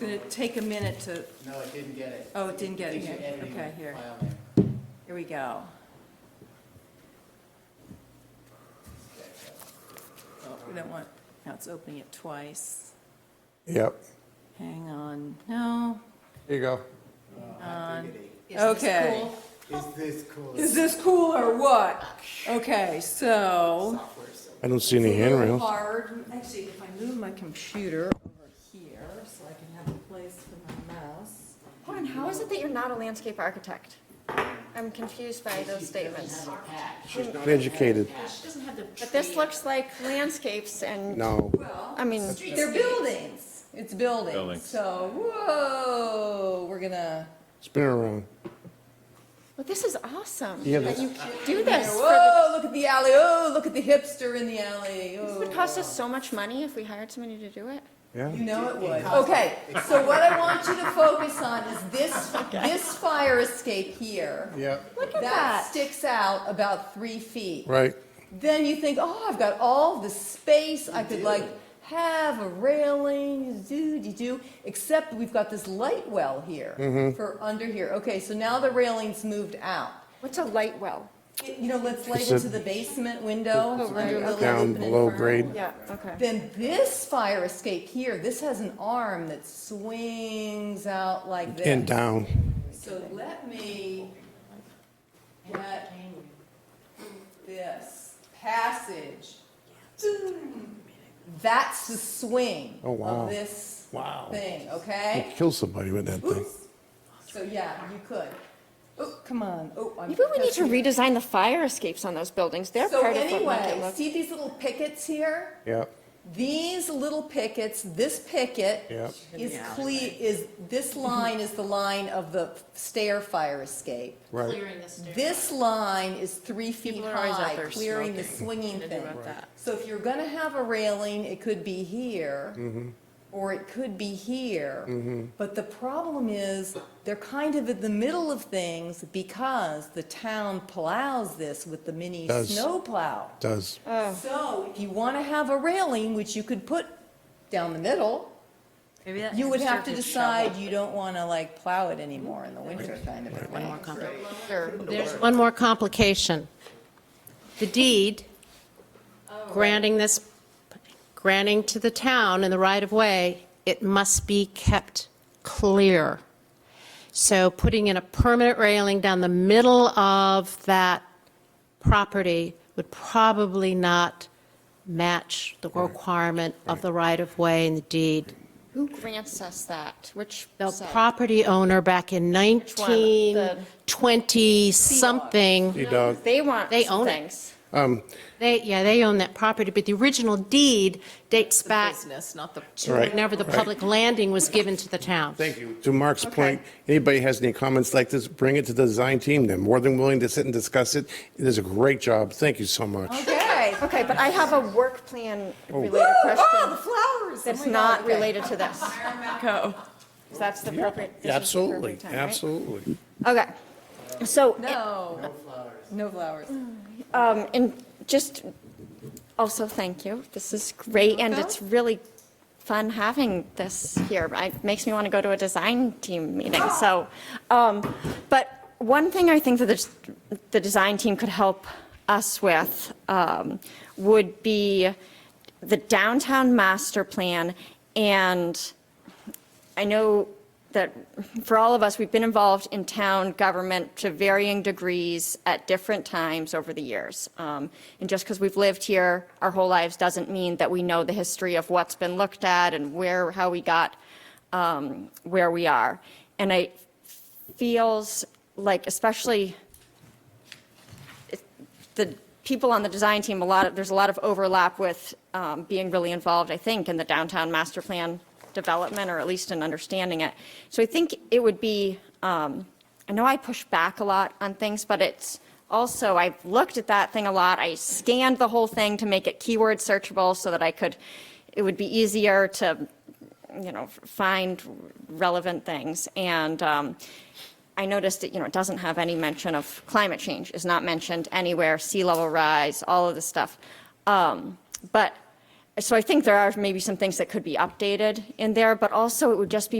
gonna take a minute to, No, it didn't get it. Oh, it didn't get it Thinks you're here. editing Okay, the here. file name. here we go. Oh, We don't want, now it's opening it twice. Yep, Hang on, no, here you go. Oh, activity. okay. Is this cool? Is this cool or what? Okay, so. Software, so I don't see any It's a little handrails. Hard, actually, if I move my computer over here, so I can have a place for my mouse. Warren, how is it that you're not a landscape architect? I'm confused by those statements. Educated, But this looks like landscapes and, no. I mean, They're buildings, it's buildings, Buildings. so, whoa, we're gonna. Spin it around. but this is awesome Yeah, that that's- you do this. for the- Whoa, look at the alley, oh, look at the hipster in the alley, Oh. This would cost us so much money if we hired somebody to do it. Yeah, You know it would. Okay, so what I want you to focus on is this, this fire escape here. yeah, Look at That that. sticks out about three feet. right. Then you think, oh, I've got all the space, I could like have a railing, do, do, do, except we've got this light well here for under here. Okay, so now the railing's moved out. What's a light well? It- You know, let's It's light a- into the basement window. Oh, right, under okay. Lily's Down open below inferno. grade. Yeah, okay. Then this fire escape here, this has an arm that swings out like this. And down. So let me get this passage. That's the swing Oh, wow. of this Wow. thing, You okay? kill somebody with that thing. Oops. So yeah, you could. Oh, come on. Oh, I'm. Maybe we need to touching- redesign the fire escapes on those buildings. They're So part of what make it anyway, look. see these little pickets here? Yeah, These little pickets, this picket yeah, is cle, is, this line is the line of the stair fire escape. right. This line is three feet People are always out high, there clearing the smoking. swinging Gonna do thing. about that. So if you're gonna have a railing, it could be here, or it could be here. But the problem is, they're kind of in the middle of things because the town plows this with the mini Does. snow plow. Does. So if you wanna have a railing, which you could put down the middle, you would have to decide you don't wanna like plow it anymore in the winter kind of a thing. There's one more complication. The deed granting this, granting to the town in the right-of-way, it must be kept clear. So putting in a permanent railing down the middle of that property would probably not match the requirement of the right-of-way and the deed. Who grants us that? Which The site? property owner back in one? The- 1920-something. Sea dog. They want They own it. things. Um, They, yeah, they own that property, but the original deed dates back Business, not the to Right, whenever the right. public landing was given to the town. Thank you. To Mark's point, anybody has any comments like this, bring it to the design team. They're more than willing to sit and discuss it. It is a great job. Thank you so much. Okay. Oh, Okay, but I have a work plan related question flowers. that's not related to this. Go. 'cause that's the appropriate. this is the Absolutely, appropriate time, right? absolutely. Okay, so, No. No flowers. um, and just, also, thank you. This is great, and it's really fun having this here. It makes me want to go to a design team meeting, so. um, But one thing I think that the, the design team could help us with um, would be the downtown master plan and I know that for all of us, we've been involved in town government to varying degrees at different times over the years. Um, And just because we've lived here our whole lives doesn't mean that we know the history of what's been looked at and where, how we got um, where we are. And it feels like, especially the people on the design team, a lot of, there's a lot of overlap with um, being really involved, I think, in the downtown master plan development, or at least in understanding it. So I think it would be, um, I know I push back a lot on things, but it's also, I've looked at that thing a lot. I scanned the whole thing to make it keyword searchable so that I could, it would be easier to, you know, find relevant things. And um, I noticed that, you know, it doesn't have any mention of climate change, is not mentioned anywhere, sea level rise, all of this stuff. Um, But, so I think there are maybe some things that could be updated in there, but also it would just be